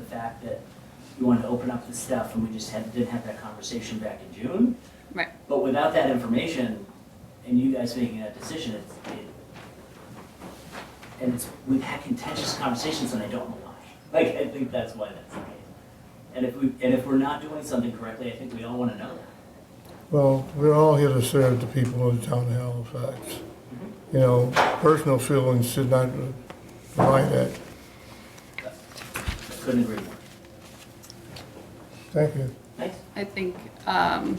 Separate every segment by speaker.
Speaker 1: fact that you wanted to open up the stuff and we just had, didn't have that conversation back in June.
Speaker 2: Right.
Speaker 1: But without that information and you guys making that decision, it's, it, and it's, we've had contentious conversations and I don't know why. Like, I think that's why that's the case. And if we, and if we're not doing something correctly, I think we all wanna know that.
Speaker 3: Well, we're all here to serve the people of the town of Halifax. You know, personal feelings should not provide that.
Speaker 1: Couldn't agree more.
Speaker 3: Thank you.
Speaker 1: Thanks.
Speaker 2: I think um,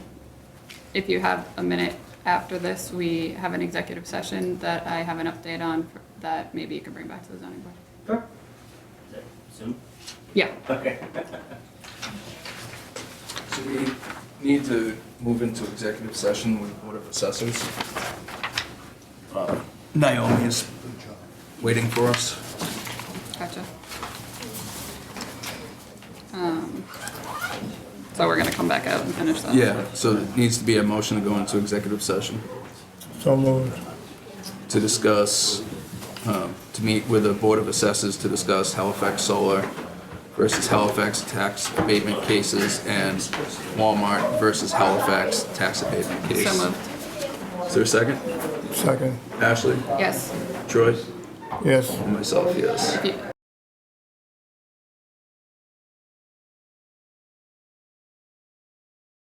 Speaker 2: if you have a minute after this, we have an executive session that I have an update on for- that maybe you can bring back to the zoning board.
Speaker 1: Sure. Is that soon?
Speaker 2: Yeah,
Speaker 1: Okay.
Speaker 4: So we need to move into executive session with Board of Assessors. Uh, Naomi is waiting for us.
Speaker 2: gotcha. Um, So we're gonna come back out and finish that.
Speaker 4: Yeah, so it needs to be a motion to go into executive session
Speaker 3: So moved.
Speaker 4: to discuss, um, to meet with the Board of Assessors to discuss Halifax Solar versus Halifax tax abatement cases and Walmart versus Halifax tax abatement case.
Speaker 2: So moved,
Speaker 4: Is there a second?
Speaker 3: Second.
Speaker 4: Ashley?
Speaker 2: yes.
Speaker 4: Troy?
Speaker 3: Yes.
Speaker 4: And myself, yes.
Speaker 2: If you-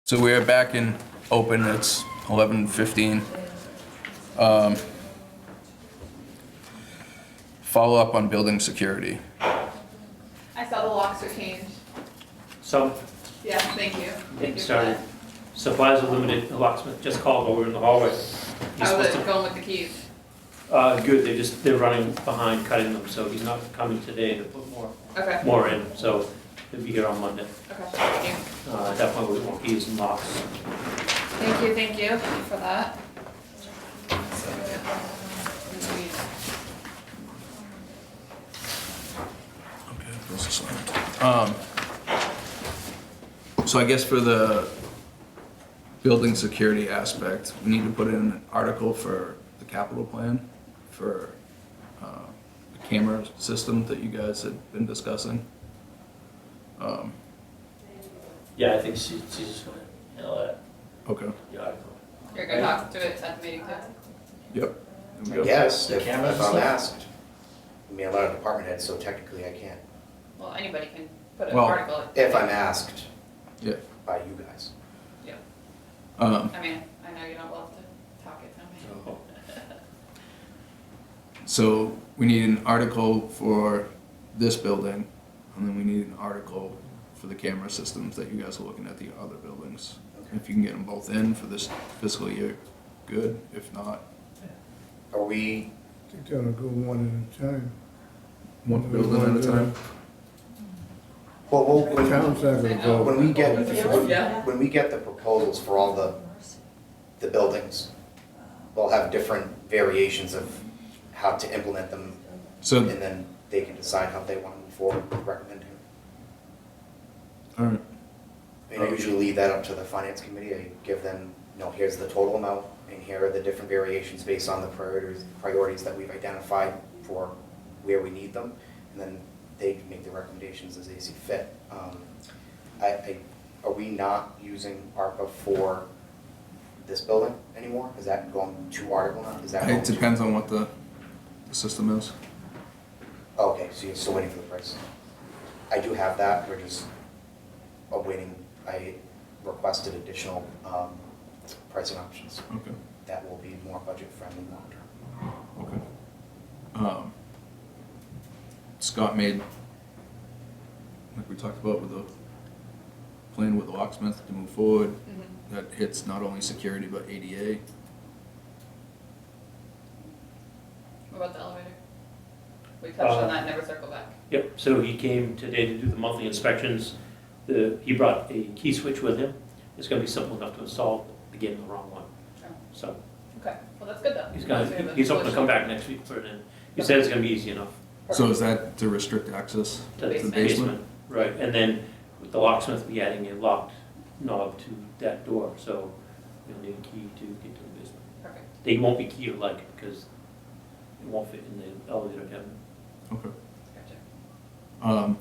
Speaker 4: So we are back in open, it's eleven fifteen. Um, Follow up on building security.
Speaker 5: I saw the locks are changed.
Speaker 6: So,
Speaker 5: Yeah, thank you. Thank you for
Speaker 6: sorry.
Speaker 5: that.
Speaker 6: supplies are limited, the locksmith just called while we were in the hallway. He's
Speaker 5: How's
Speaker 6: supposed
Speaker 5: it going with the keys?
Speaker 6: to, uh, good, they're just, they're running behind cutting them, so he's not coming today to put more,
Speaker 5: Okay,
Speaker 6: more in, so he'll be here on Monday.
Speaker 5: okay, thank you.
Speaker 6: Uh, at that point, we won't be using locks.
Speaker 5: Thank you, thank you for that.
Speaker 4: Okay, those are signed. Um, So I guess for the building security aspect, we need to put in an article for the capital plan for uh, the camera system that you guys had been discussing. Um,
Speaker 6: Yeah, I think she, she's just gonna handle that,
Speaker 4: Okay,
Speaker 6: uh, the article.
Speaker 5: You're gonna talk to it at the meeting too?
Speaker 4: yep. there we go.
Speaker 7: Yes,
Speaker 1: The
Speaker 7: if
Speaker 1: camera
Speaker 7: if I'm
Speaker 1: stuff?
Speaker 7: asked. I mean, a lot of department heads, so technically I can't,
Speaker 5: Well, anybody can put an
Speaker 4: Well,
Speaker 5: article.
Speaker 7: if I'm asked
Speaker 4: Yeah.
Speaker 7: by you guys.
Speaker 4: Um,
Speaker 5: I mean, I know you don't love to talk at town meeting.
Speaker 4: So we need an article for this building, and then we need an article for the camera systems that you guys are looking at the other buildings. If you can get them both in for this fiscal year, good. If not,
Speaker 7: Are we,
Speaker 3: I think that'll go one at a time.
Speaker 4: one building at a time.
Speaker 7: well, we'll-
Speaker 3: The town's
Speaker 7: when,
Speaker 3: not gonna go.
Speaker 7: when we get,
Speaker 3: Oh,
Speaker 5: Yeah.
Speaker 7: when we get the proposals for all the, the buildings, we'll have different variations of how to implement them, and
Speaker 4: So,
Speaker 7: then they can decide how they want to move forward, with recommending.
Speaker 4: all right,
Speaker 7: And I usually leave that up to the finance committee, I give them, you know, here's the total amount, and here are the different variations based on the priorities, priorities that we've identified for where we need them, and then they can make the recommendations as they see fit. Um, I, I, are we not using ARPA for this building anymore? Is that going to article now? Is that going
Speaker 4: it
Speaker 7: to?
Speaker 4: depends on what the, the system is.
Speaker 7: Okay, so you're still waiting for the price? I do have that, we're just awaiting, I requested additional um, pricing options.
Speaker 4: Okay,
Speaker 7: That will be more budget friendly long term.
Speaker 4: okay. Um, Scott made, like we talked about with the plan with the locksmith to move forward.
Speaker 5: Mhm.
Speaker 4: that hits not only security but ADA.
Speaker 5: What about the elevator? We touched
Speaker 6: Uh,
Speaker 5: on that, never circle back.
Speaker 6: Yep, so he came today to do the monthly inspections. The, he brought a key switch with him. It's gonna be simple enough to install, again, the wrong one.
Speaker 5: Sure.
Speaker 6: So
Speaker 5: Oh, Okay, well, that's good though.
Speaker 6: he's
Speaker 5: That's good,
Speaker 6: gonna,
Speaker 5: that's
Speaker 6: he's hoping to
Speaker 5: solution.
Speaker 6: come back next week for it, and he said it's gonna be easy enough.
Speaker 4: So is that to restrict access?
Speaker 6: to
Speaker 5: The
Speaker 6: the basement. Right, and then with the locksmith will be adding a locked knob to that door, so you'll need a key to get to the basement.
Speaker 5: Perfect.
Speaker 6: They won't be key or like because it won't fit in the elevator cabin.
Speaker 4: Okay.
Speaker 5: Gotcha.
Speaker 4: Um,